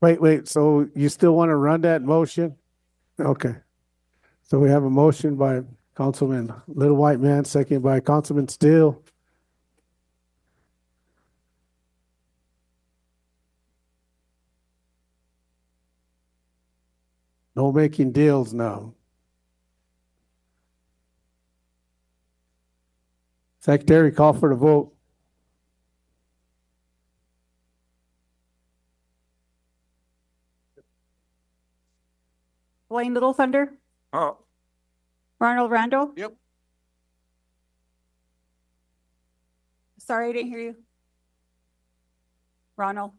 Wait, wait, so you still want to run that motion? Okay. So we have a motion by Councilman Little White Man, second by Councilman Steele. No making deals now. Secretary, call for the vote. Blaine Little Thunder, Oh, Ronald Randall. Yep. Sorry, I didn't hear you. Ronald,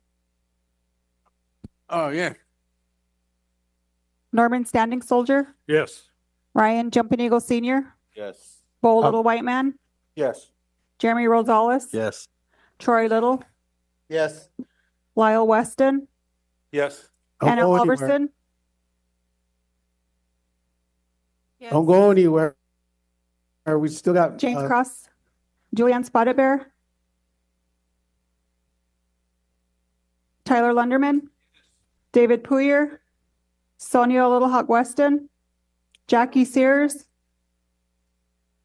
oh, yeah. Norman Standing Soldier, Yes. Ryan Jumping Eagle Senior, Yes. Bo Uh, Little White Man, Yes. Jeremy Rosales. Yes. Troy Little, Yes. Lyle Weston, Yes. Don't Anna go anywhere. Alverson. Don't go anywhere. Are we still got? James uh, Cross, Julianne Spotted Bear, Tyler Lunderman, David Puyer, Sonia Little Hawk Weston, Jackie Sears,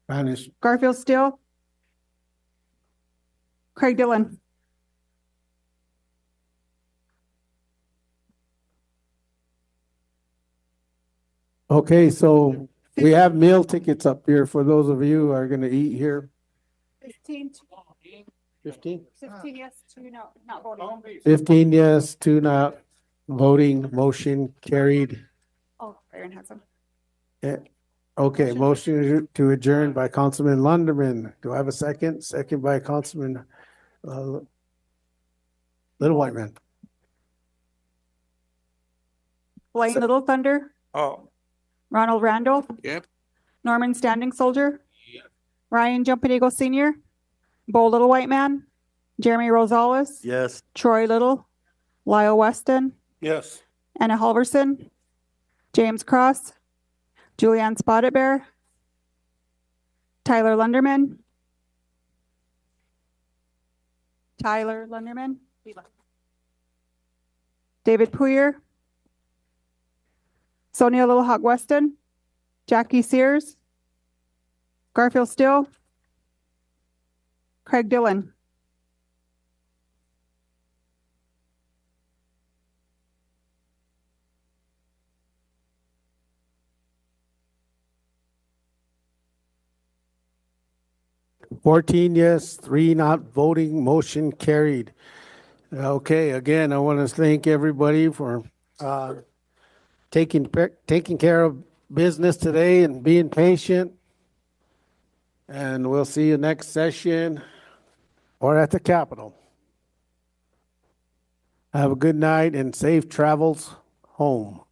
Spanish. Garfield Steele, Craig Dillon. Okay, so we have meal tickets up here for those of you who are gonna eat here. Fifteen, Fifteen? fifteen, yes, two, no, not Oh. voting. Fifteen yes, two not, voting, motion carried. Eh, Oh, Aaron has them. Okay, motion to adjourn by Councilman Lunderman. Do I have a second? Second by Councilman, uh, Little White Man. Blaine So- Little Thunder, Oh, Ronald Randall. Yep. Norman Standing Soldier. Ryan Jumping Eagle Senior. Bo Little White Man. Jeremy Rosales. Yes. Troy Little. Lyle Weston. yes. Anna Halverson. James Cross. Julianne Spotted Bear. Tyler Lunderman. Tyler Lunderman. David Puyer. Sonia Little Hawk Weston. Jackie Sears. Garfield Steele. Craig Dillon. Fourteen yes, three not voting, motion carried. Okay, again, I want to thank everybody for uh, taking, pe- taking care of business today and being patient. And we'll see you next session or at the Capitol. Have a good night and safe travels home.